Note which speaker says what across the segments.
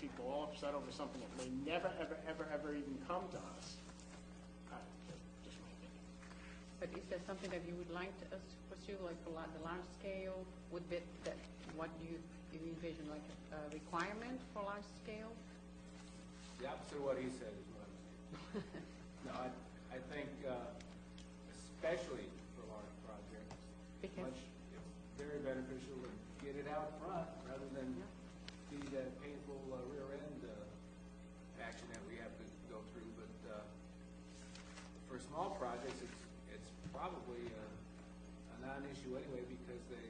Speaker 1: people all upset over something that may never, ever, ever, ever even come to us. Uh, Just my opinion.
Speaker 2: But is there something that you would like to- us to pursue, like the la- the large scale? Would that, that, what do you do you envision, like a- a requirement for large scale?
Speaker 3: The opposite of what he said is what I'm saying. No, I, I think, uh, especially for large projects,
Speaker 2: Because-
Speaker 3: much, it's very beneficial to get it out front rather than be that painful uh, rear end, uh, action that we have to go through, but, uh, for small projects, it's, it's probably a, a non-issue anyway because they,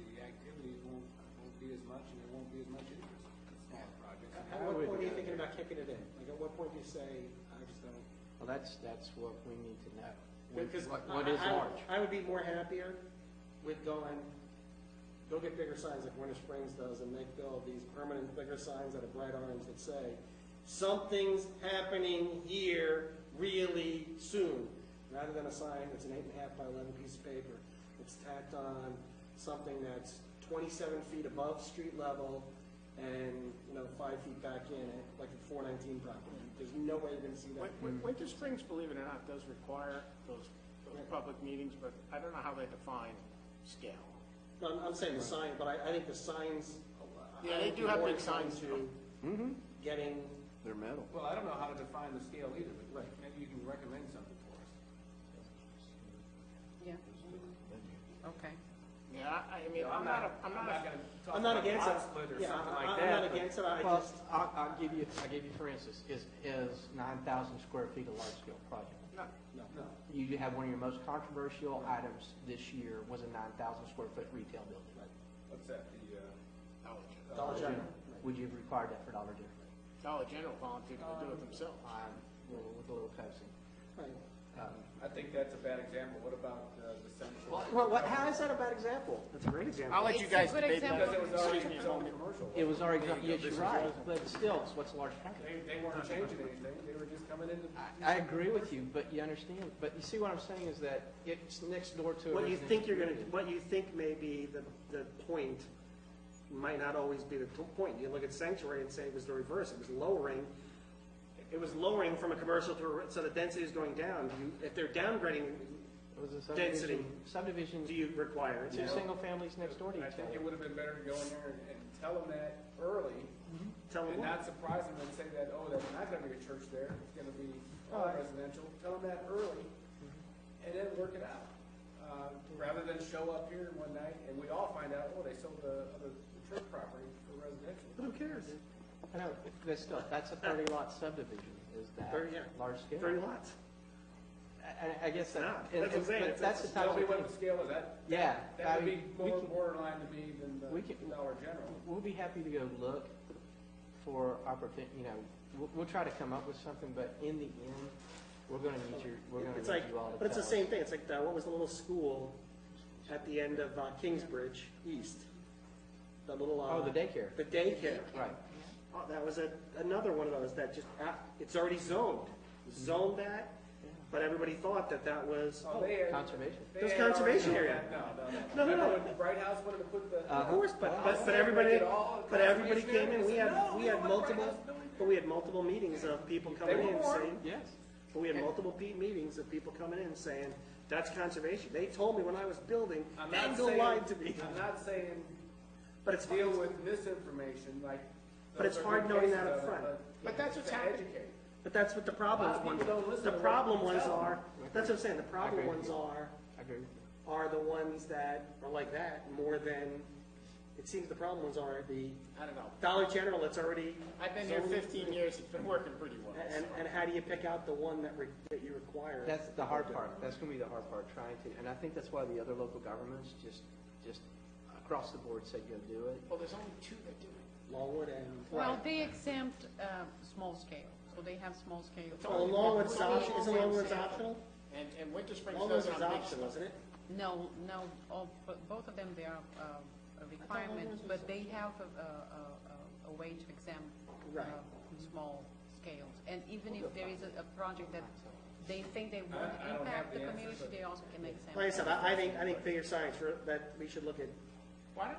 Speaker 3: the activity won't, won't be as much and there won't be as much interest in small projects.
Speaker 4: At
Speaker 3: I
Speaker 4: what
Speaker 3: would,
Speaker 4: point are
Speaker 3: uh,
Speaker 4: you thinking about kicking it in? Like, at what point do you say, I just don't?
Speaker 5: Well, that's, that's what we need to know. What-
Speaker 4: Because
Speaker 5: what-
Speaker 4: I-
Speaker 5: What is
Speaker 4: I- I would-
Speaker 5: large?
Speaker 4: I would be more happier with going, go get bigger signs like Winter Springs does and make build these permanent bigger signs that have bright orange that say, something's happening here really soon, rather than a sign that's an eight and a half by eleven piece of paper. It's tacked on something that's twenty-seven feet above street level and, you know, five feet back in it, like the four nineteen property. There's no way you're gonna see that.
Speaker 1: Win- Win- Winter Springs, believe it or not, does require those, those public meetings, but I don't know how they define scale.
Speaker 4: No, I'm, I'm saying the sign, but I, I think the signs.
Speaker 1: Yeah, they
Speaker 4: I'd
Speaker 1: do
Speaker 4: be
Speaker 1: have
Speaker 4: more
Speaker 1: big signs.
Speaker 4: inclined to Getting,
Speaker 6: They're metal.
Speaker 3: Well, I don't know how to define the scale either, but
Speaker 4: Right.
Speaker 3: maybe you can recommend something for us.
Speaker 2: Yeah. Okay.
Speaker 1: Yeah, I, I mean, I'm not, a- I'm not, a-
Speaker 3: gonna talk
Speaker 4: I'm not
Speaker 3: about
Speaker 4: against it.
Speaker 3: lot split or
Speaker 4: Yeah,
Speaker 3: something
Speaker 4: I-
Speaker 3: like
Speaker 4: I'm
Speaker 3: that.
Speaker 4: not
Speaker 3: but-
Speaker 4: against it, I
Speaker 5: Well,
Speaker 4: just,
Speaker 5: I'll, I'll give you, I'll give you, for instance, is, is nine thousand square feet a large scale project?
Speaker 1: no,
Speaker 4: no, no.
Speaker 5: You have one of your most controversial items this year was a nine thousand square foot retail building.
Speaker 3: What's that, the, uh,
Speaker 1: Dollar General.
Speaker 4: Dollar General.
Speaker 5: Would you have required that for Dollar General?
Speaker 1: Dollar General volunteered to do it themselves.
Speaker 5: Um, well, with a little coaxing.
Speaker 4: Right.
Speaker 3: I think that's a bad example. What about, uh, the central?
Speaker 5: Well, what, how is that a bad example? That's a great example.
Speaker 1: I'll let you
Speaker 2: It's a
Speaker 1: guys
Speaker 2: good
Speaker 1: debate that.
Speaker 2: example.
Speaker 3: Because it was already
Speaker 1: Excuse me a
Speaker 3: zoned
Speaker 1: moment.
Speaker 3: commercial.
Speaker 5: It was already, yes,
Speaker 3: This
Speaker 5: you're
Speaker 3: is
Speaker 5: right,
Speaker 3: yours.
Speaker 5: but still, it's what's a large project?
Speaker 3: They, they weren't changing anything. They were just coming in to.
Speaker 5: I, I agree with you, but you understand, but you see what I'm saying is that it's next door to. a
Speaker 4: What you
Speaker 5: residential
Speaker 4: think you're gonna,
Speaker 5: community.
Speaker 4: what you think may be the, the point might not always be the to- point. You look at sanctuary and say it was the reverse, it was lowering, it was lowering from a commercial to a, re- so the density is going down. You- If they're downgrading,
Speaker 5: It was a
Speaker 4: Density.
Speaker 5: subdivision, subdivision,
Speaker 4: do you require it?
Speaker 5: two single families next door to
Speaker 3: I
Speaker 5: each
Speaker 3: think it
Speaker 5: other.
Speaker 3: would have been better to go in there and, and tell them that early
Speaker 4: Tell them
Speaker 3: and
Speaker 4: what?
Speaker 3: not surprise them and say that, oh, that's not gonna be a church there. It's gonna be all residential. Tell them that early and then work it out. Uh, rather than show up here one night and we all find out, oh, they sold the, the church property for residential.
Speaker 4: Who cares?
Speaker 5: I know, but still, that's a thirty lot subdivision, is that
Speaker 4: Thirty, yeah.
Speaker 5: large scale?
Speaker 4: Thirty lots.
Speaker 5: I, I guess that.
Speaker 4: not.
Speaker 5: and-
Speaker 4: That's what I'm saying.
Speaker 5: but
Speaker 4: It's-
Speaker 5: That's the
Speaker 4: it's
Speaker 5: type
Speaker 3: Tell
Speaker 5: of
Speaker 3: me what the
Speaker 5: thing,
Speaker 3: scale is. That,
Speaker 5: yeah. I
Speaker 3: that would be
Speaker 5: mean, we
Speaker 3: more
Speaker 5: can-
Speaker 3: borderline to me than the
Speaker 5: we can-
Speaker 3: Dollar General.
Speaker 5: We'll be happy to go look for opportunity, you know, we'll, we'll try to come up with something, but in the end, we're gonna need your, we're gonna
Speaker 4: It's like,
Speaker 5: need you all to tell us.
Speaker 4: but it's the same thing, it's like, the- what was the little school at the end of uh, Kingsbridge East? The little, uh.
Speaker 5: Oh, the daycare.
Speaker 4: The daycare.
Speaker 5: Right.
Speaker 4: Oh, that was a, another one of those that just, uh, it's already zoned, zoned that, but everybody thought that that was,
Speaker 3: Oh, they had-
Speaker 5: Conservation.
Speaker 3: they
Speaker 4: That's
Speaker 3: had already
Speaker 4: conservation
Speaker 3: known
Speaker 4: area.
Speaker 3: that. No, no, no.
Speaker 4: No, no, Uh, no.
Speaker 3: Remember when Bright House wanted to put the.
Speaker 4: of course, but, but, but
Speaker 3: Well,
Speaker 4: everybody,
Speaker 3: they all-
Speaker 4: but everybody came in, we had,
Speaker 3: No,
Speaker 4: we
Speaker 3: we
Speaker 4: had
Speaker 3: don't want Bright
Speaker 4: multiple,
Speaker 3: House building.
Speaker 4: but we had multiple meetings of people coming
Speaker 3: were
Speaker 4: in
Speaker 3: warned.
Speaker 4: saying,
Speaker 5: Yes.
Speaker 4: But we had multiple pe- meetings of people coming in saying, that's conservation. They told me when I was building,
Speaker 3: I'm not
Speaker 4: Bengal
Speaker 3: saying-
Speaker 4: lied to me.
Speaker 3: I'm not saying
Speaker 4: But it's,
Speaker 3: deal
Speaker 4: but
Speaker 3: with misinformation, like.
Speaker 4: But it's
Speaker 3: those are
Speaker 4: hard
Speaker 3: good
Speaker 4: knowing
Speaker 3: cases
Speaker 4: that up
Speaker 3: of it,
Speaker 4: front.
Speaker 1: But that's what's
Speaker 3: to
Speaker 1: happening.
Speaker 3: educate.
Speaker 4: that's what the
Speaker 3: A lot
Speaker 4: problem
Speaker 3: of
Speaker 4: ones,
Speaker 3: people don't listen
Speaker 4: the
Speaker 3: to what
Speaker 4: problem
Speaker 3: you
Speaker 4: ones
Speaker 3: tell
Speaker 4: are,
Speaker 3: them.
Speaker 4: that's what I'm saying, the problem
Speaker 5: agree
Speaker 4: ones
Speaker 5: with you.
Speaker 4: are,
Speaker 5: I agree with you.
Speaker 4: are the ones that are like that more than, it seems the problem ones are the
Speaker 1: I don't know.
Speaker 4: Dollar General that's already.
Speaker 1: I've been here
Speaker 4: zoned.
Speaker 1: fifteen years, it's been working pretty well.
Speaker 4: And, and how do you pick out the one that re, that you require?
Speaker 5: That's the hard part. That's gonna be the hard part, trying to, and I think that's why the other local governments just, just across the board said go do it.
Speaker 1: Well, there's only two that do it.
Speaker 4: Longwood and.
Speaker 2: Well, they exempt uh, small scale, so they have small scale.
Speaker 4: Oh, Longwood's optional, isn't Longwood's optional?
Speaker 1: And, and Winter Springs
Speaker 4: Longwood's
Speaker 1: doesn't
Speaker 4: is
Speaker 1: have big
Speaker 4: optional, isn't it?
Speaker 2: No, no, all- but both of them, they are um, a requirement, but they have a- a- a- a- a way to exempt uh,
Speaker 4: Right.
Speaker 2: small scales. And even if there is a a project that they think they won't
Speaker 3: I don't
Speaker 2: impact
Speaker 3: have the
Speaker 2: the
Speaker 3: answer,
Speaker 2: community,
Speaker 3: but-
Speaker 2: they also can exempt.
Speaker 4: Like I said, I, I think, I think bigger signs, for- that we should look at
Speaker 1: Why don't,